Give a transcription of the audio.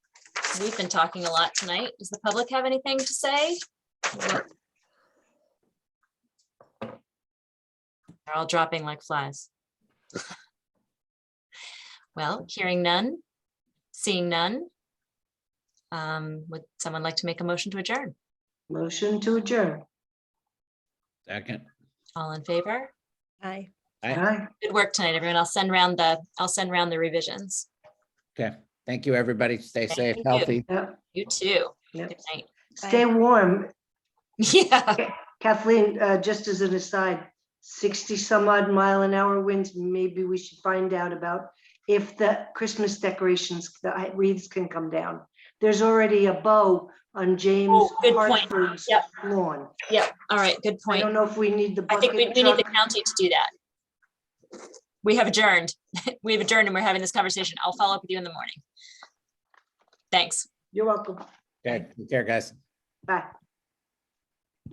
We've been talking a lot tonight. Does the public have anything to say? They're all dropping like flies. Well, hearing none, seeing none. Um, Would someone like to make a motion to adjourn? Motion to adjourn. Second. All in favor? Aye. Aye. Aye. Good work tonight, everyone. I'll send round the, I'll send round the revisions. Okay. Thank you, everybody. Stay Thank safe, you. healthy. Yep. You too. Yep. Good night. Stay warm. Yeah. Kathleen, uh, just as an aside, 60 some odd mile an hour winds, maybe we should find out about if the Christmas decorations, the hi- wreaths can come down. There's already a bow on James Oh, good point. Hartford's Yep. lawn. Yep. All right. Good I point. don't know if we need the I think we, bucket we need the truck. county to do that. We have adjourned. We have adjourned and we're having this conversation. I'll follow up with you in the morning. Thanks. You're welcome. Okay, take care, guys. Bye.